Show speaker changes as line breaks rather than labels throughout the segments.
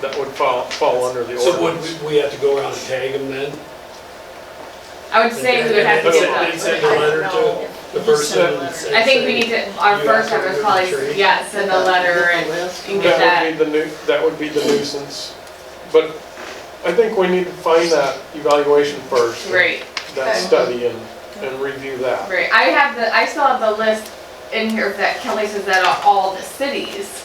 that would fall, fall under the
So would
ordinance.
we, we have to go around and tag them then?
I would say we would have to
Okay. They
get those.
send a letter to the person and say.
I think we need to, our first step is probably, yeah, send a letter and and get
That would
that.
be the new, that would be the nuisance. But I think we need to find that evaluation first.
Right,
That
Okay.
study and, and review that.
right. I have the, I still have the list in here that Kelly says that are all the cities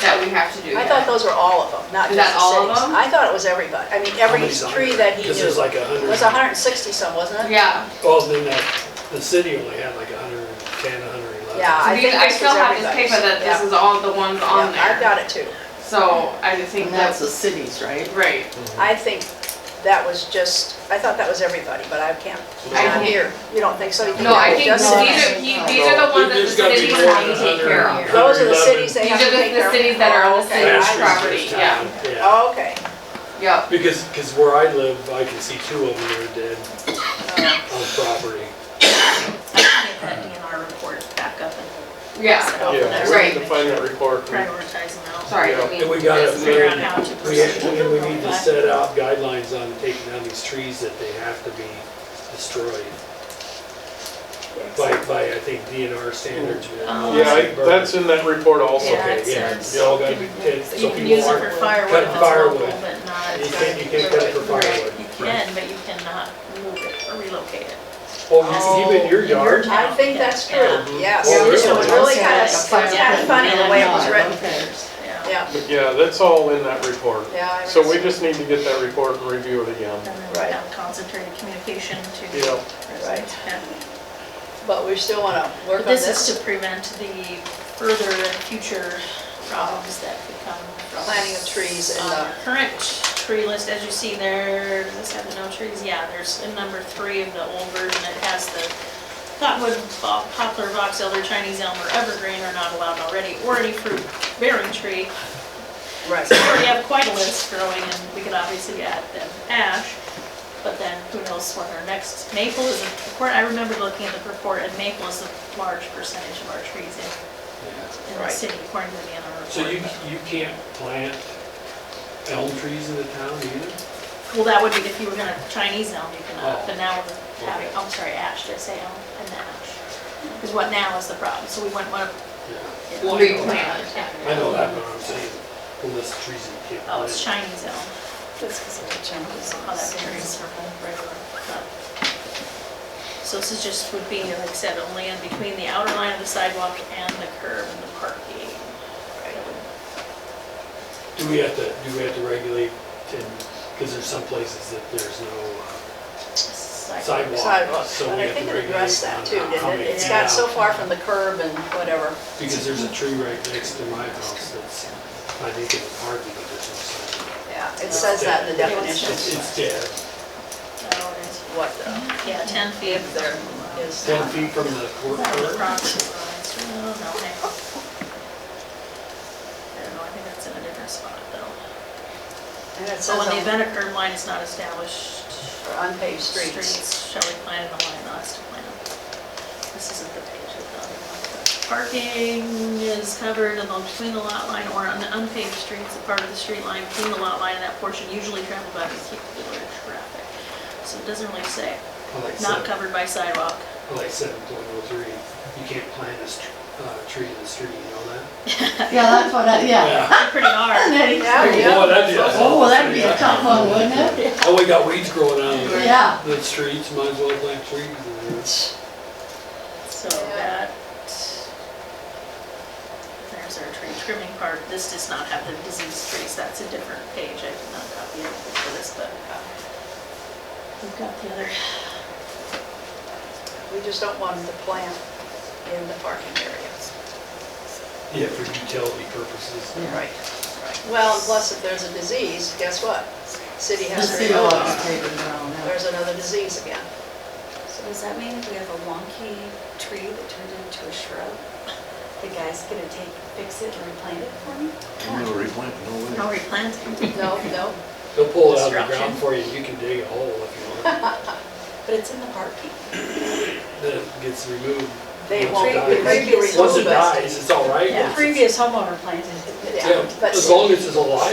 that we have to do.
I
here.
thought those were all of them, not
Is
just
that
the
all of
cities.
them?
I thought it was everybody, I mean, every tree that he
Because there's
knew.
like a
It
hundred.
was hundred and sixty some, wasn't it?
Yeah,
Well, then that, the city only had like a hundred and ten, a hundred and eleven.
Yeah,
so
I
these,
think
I
this
still
was
have this
everybody's.
paper that this
Yeah.
is all the ones on
Yeah, I've
there.
got it too.
So I just think
And that's
that's,
the cities, right?
right.
I think that was just, I thought that was everybody, but I can't,
I
I'm
can't-
here. You don't think so? You think
No, I
that
think
was
these
just
No,
are, he- these are the ones that the
There's gotta be
cities
more than
have to take care of.
100.
Those are the
111
cities they
These
have to
are the-
take
the
care of. Oh,
cities that are on the
Okay.
city.
Pastures
property,
this
yeah.
time, Yeah,
Oh, okay.
Yep,
because, because where I live, I can see two of them that are dead on property.
I can get that DNR report back up and
yeah,
Oh,
Yeah,
that's
we need
right.
to find that report. and-
prioritize them out.
sorry.
Yeah.
I mean,
And we gotta
this-
Figure out how to
We,
proceed.
and we need to set out guidelines on taking down these trees that they have to be destroyed by, by, I think, DNR standards.
Um,
Yeah, I- that's in that report also.
Yeah,
Okay,
it
yeah,
says-
you all gotta be, and
So
so
you can use
people
it for
aren't,
firewood if it's
firewood.
local, but not.
You can't- you can't cut it for firewood.
You can, but you cannot move it or relocate it.
well, you- even your yard,
I think that's true,
Yeah.
yes.
Oh,
Well,
It
this
was
one
really
said
kind of,
like a
it's
fire
kind of
pit
funny the way it was
Yeah,
written.
okay.
Yeah.
Yeah,
But Yeah, that's all in that report.
yeah. I
So we
remember.
just need to get that report and review it again.
And
Right.
then have concentrated communication to.
Yeah.
residents. Yeah.
But we still want to work
But
on
this is
this.
to prevent the further and future problems that could come from.
Planting of trees uh, in
on
the-
our Uh, Current tree list, as you see there, does this have the no trees? Yeah, there's in number three of the old version, it has the cottonwood, bo- poplar, box elder, Chinese elm, or evergreen are not allowed already, or any fruit bearing tree.
Right.
So we already have quite a list growing, and we could obviously add then ash, but then who knows what our next, maple is, a- I remember looking at the report, and maple is a large percentage of our trees in in the
Right.
city, according to the NR report.
so you, you can't plant elm trees in the town either?
Well, that would be if you were gonna Chinese elm, you
Oh.
cannot, but now we're having,
Okay.
I'm sorry, ash, did I say elm and ash? Is what now is the problem, so we wouldn't want to.
Yeah. Well, I know that.
Replant.
I know that, but I'm saying, unless the trees you can't
Oh, it's
plant.
Chinese elm, how that varies from regular. but- So this is just, would be, like I said, a land between the outer line of the sidewalk and the curb and the parking.
Do we have to, do we have to regulate, because there's some places that there's no uh,
Sidewalk.
sidewalk,
Sidewalks,
so
but
we
I
have to
think
regulate.
it addressed that
on
too,
how
didn't
many-
it? It's got so
Yeah.
far from the curb and whatever.
Because there's a tree right next to my house that's, I think it's hard to get this inside.
Yeah. It says that in the
Yeah, it's
definition,
It's, it's dead,
Oh, it is.
what the,
Yeah, 10 feet there.
is.
ten feet from the court.
That was
court.
Bronx Rollins. Oh, no, hang on. I don't know, I think that's in a different spot
And
though.
it says
So when the
on
event or curb line is not established,
for unpaved streets.
streets shall be planted in the line not to plan. This isn't the page of the other one. but Parking is covered in the- between the lot line or on the unpaved streets, a part of the street line between the lot line and that portion usually traveled by vehicular traffic. So it doesn't really say,
Like
not
seven-
covered by sidewalk.
Like seven point oh three, you can't plant a str- uh, tree in the street, you know that?
Yeah, that's what, I yeah.
Pretty hard.
Yeah, yeah.
Boy, that'd be a-
Oh, well, that'd be a tough one, wouldn't it?
Oh, we got weeds growing out of the-
Yeah.
the streets, might as well plant trees in there.
So that, there's our tree trimming part, this does not have the disease trees, that's a different page, I did not copy it for this, but uh, we've got the other,
We just don't want them to plant in the parking areas.
Yeah, for utility purposes.
Right, right. Well, and plus if there's a disease, guess what? City
The
has to
city
reopen.
laws take it down, yeah.
There's another disease again.
So does that mean if we have a wonky tree that turned into a shrub, the guy's gonna take, fix it and replant it for me?
I'm gonna replant, no way.
no replanting.
No, no,
They'll pull it out of the ground
Destruction.
for you, you can dig a hole if you want,
But it's in the parking.
then it gets removed.
they
Once
won't.
it
The
dies-
previous
Once it
owners-
dies, it's all right.
The
Once it's-
previous homeowner planted it.
Yeah,
Yeah,
but
as long as it's alive.